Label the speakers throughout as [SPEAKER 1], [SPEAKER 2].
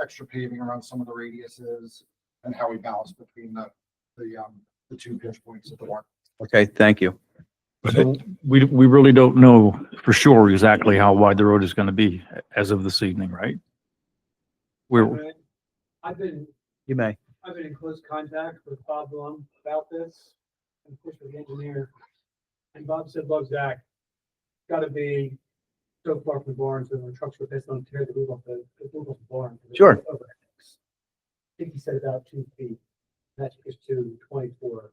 [SPEAKER 1] extra paving around some of the radiuses and how we balance between the, the, um, the two pinch points of the work.
[SPEAKER 2] Okay, thank you.
[SPEAKER 3] So we, we really don't know for sure exactly how wide the road is going to be as of this evening, right? We're,
[SPEAKER 4] Alright. I've been,
[SPEAKER 2] You may.
[SPEAKER 4] I've been in close contact with Bob Blum about this, and of course with the engineer. And Bob said, look, Zach, gotta be so far from the barn, so when the trucks were pissed on tear the roof off the, the roof off the barn.
[SPEAKER 2] Sure.
[SPEAKER 4] Over. I think he said about two feet, that's just to twenty-four.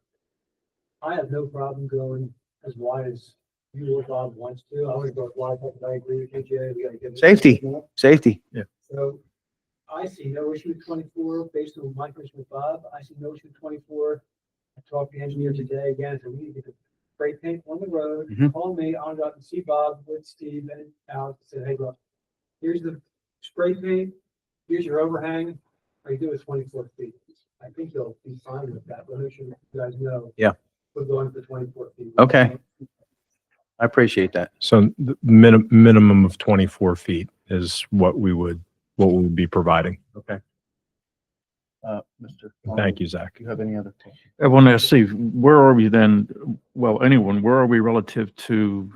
[SPEAKER 4] I have no problem going as wide as you or Bob wants to, I would go as wide, but I agree with you, Jay, we gotta give. it-
[SPEAKER 2] Safety. Safety.
[SPEAKER 4] So I see no issue with twenty-four based on my question with Bob. I see no issue with twenty-four. I talked to the engineer today again, so we need to get the spray paint on the road.
[SPEAKER 2] Mhm.
[SPEAKER 4] Call me, I'll go out and see Bob with Steve and Alex and say, hey, look, here's the spray paint. Here's your overhang. Are you doing twenty-four feet? I think you'll be fine with that, but make sure you guys know.
[SPEAKER 2] Yeah.
[SPEAKER 4] We're going for twenty-four feet.
[SPEAKER 2] Okay. I appreciate that.
[SPEAKER 5] So the minimum, minimum of 24 feet is what we would, what we would be providing.
[SPEAKER 2] Okay. Uh, Mr.
[SPEAKER 5] Thank you, Zach.
[SPEAKER 2] Do you have any other?
[SPEAKER 3] I want to see, where are we then? Well, anyone, where are we relative to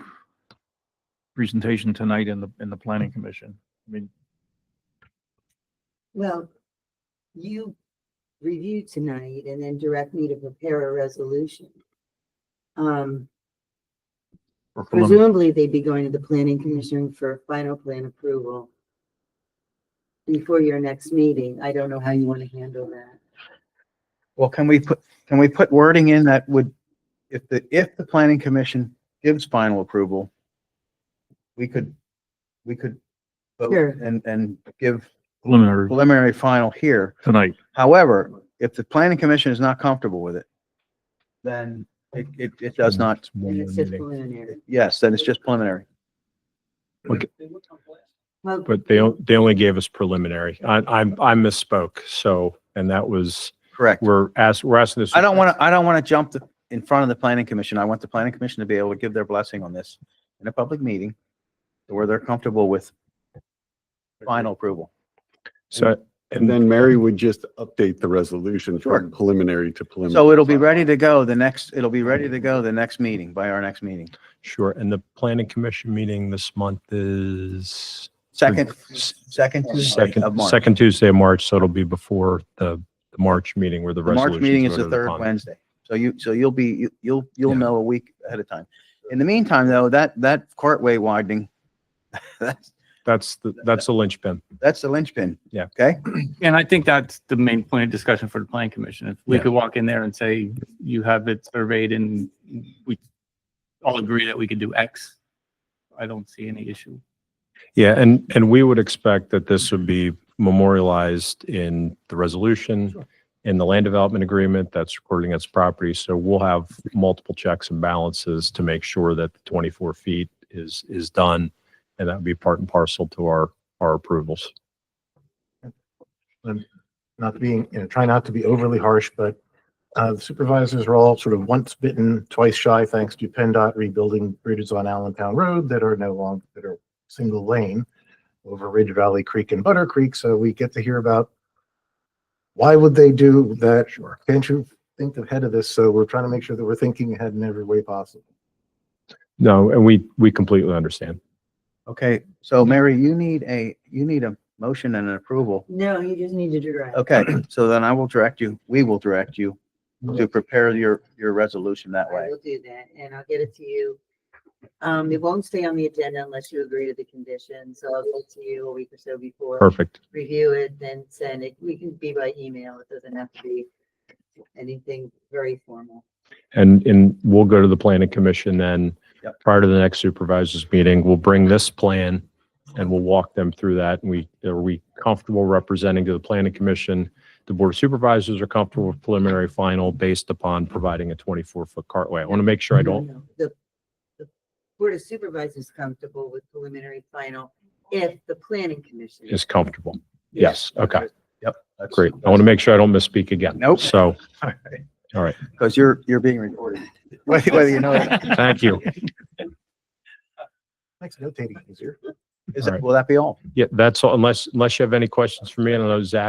[SPEAKER 3] presentation tonight in the, in the planning commission? I mean,
[SPEAKER 6] Well, you review tonight and then direct me to prepare a resolution. Um,
[SPEAKER 3] or prelim-
[SPEAKER 6] presumably they'd be going to the planning commission for final plan approval before your next meeting. I don't know how you want to handle that.
[SPEAKER 2] Well, can we put, can we put wording in that would, if the, if the planning commission gives final approval, we could, we could vote
[SPEAKER 6] Sure.
[SPEAKER 2] and, and give
[SPEAKER 3] preliminary
[SPEAKER 2] preliminary final here.
[SPEAKER 3] tonight.
[SPEAKER 2] However, if the planning commission is not comfortable with it, then it, it, it does not,
[SPEAKER 6] And it's just
[SPEAKER 5] But
[SPEAKER 6] preliminary.
[SPEAKER 2] yes, then it's just preliminary.
[SPEAKER 4] They look complex.
[SPEAKER 6] Well,
[SPEAKER 5] they, on- they only gave us preliminary. I, I, I misspoke. So, and that was,
[SPEAKER 2] Correct.
[SPEAKER 5] we're asked, we're asking this.
[SPEAKER 2] I don't want to, I don't want to jump the- in front of the planning commission. I want the planning commission to be able to give their blessing on this in a public meeting where they're comfortable with final approval.
[SPEAKER 5] So,
[SPEAKER 7] And then Mary would just update the resolution
[SPEAKER 2] Sure.
[SPEAKER 7] from preliminary to preliminary.
[SPEAKER 2] So it'll be ready to go the next, it'll be ready to go the next meeting, by our next meeting.
[SPEAKER 5] sure. And the planning commission meeting this month is
[SPEAKER 2] Second, second Tuesday of
[SPEAKER 5] second,
[SPEAKER 2] March.
[SPEAKER 5] second Tuesday of March. So it'll be before the, the March meeting where the
[SPEAKER 2] The March
[SPEAKER 5] resolution.
[SPEAKER 2] meeting is the third Wednesday. So you, so you'll be, you- you'll, you'll
[SPEAKER 5] Yeah.
[SPEAKER 2] know a week ahead of time. In the meantime, though, that, that cartway widening, that's,
[SPEAKER 5] That's, the that's the linchpin.
[SPEAKER 2] that's the linchpin.
[SPEAKER 5] Yeah.
[SPEAKER 2] Okay?
[SPEAKER 8] And I think that's the main point of discussion for the planning commission. If we
[SPEAKER 5] Yeah.
[SPEAKER 8] could walk in there and say, you have it surveyed and we all agree that we could do X, I don't see any issue.
[SPEAKER 5] Yeah, and, and we would expect that this would be memorialized in the resolution, in the land development agreement that's recording its property. So we'll have multiple checks and balances to make sure that the 24 feet is, is done. And that would be part and parcel to our, our approvals.
[SPEAKER 9] not to being, you know, try not to be overly harsh, but uh, the supervisors are all sort of once bitten, twice shy, thanks to PennDOT rebuilding bridges on Allentown Road that are no longer, that are single lane over Ridge Valley Creek and Butter Creek. So we get to hear about why would they do that? Sure. Can't you think ahead of this? So we're trying to make sure that we're thinking ahead in every way possible.
[SPEAKER 5] No, and we, we completely understand.
[SPEAKER 2] Okay, so Mary, you need a, you need a motion and an approval.
[SPEAKER 6] no, you just need to direct.
[SPEAKER 2] Okay, so then I will direct you, we will direct you to prepare your, your resolution that
[SPEAKER 6] I
[SPEAKER 2] way.
[SPEAKER 6] will do that and I'll get it to you. Um, it won't stay on the agenda unless you agree to the conditions. So I'll get it to you a week or so before.
[SPEAKER 5] Perfect.
[SPEAKER 6] review it, then send it. We can be by email. It doesn't have to be anything very formal.
[SPEAKER 5] And, and we'll go to the planning commission then
[SPEAKER 2] Yep.
[SPEAKER 5] prior to the next supervisors meeting. We'll bring this plan and we'll walk them through that. And we, are we comfortable representing to the planning commission? The board of supervisors are comfortable with preliminary final based upon providing a 24 foot cartway. I want to make sure I don't,
[SPEAKER 6] The, the Board of Supervisors is comfortable with preliminary final if the planning commission.
[SPEAKER 5] is comfortable. Yes. Okay.
[SPEAKER 2] That's
[SPEAKER 5] Great. I want to make sure I don't misspeak again.
[SPEAKER 2] Nope.
[SPEAKER 5] So,
[SPEAKER 2] Because you're, you're being recorded, whether whether you know it.
[SPEAKER 5] thank you.
[SPEAKER 9] Makes notating easier.
[SPEAKER 2] Is
[SPEAKER 5] All
[SPEAKER 2] that,
[SPEAKER 5] right.
[SPEAKER 2] will that be all?
[SPEAKER 5] Yeah, that's all, unless, unless you have any questions for me, and I know Zach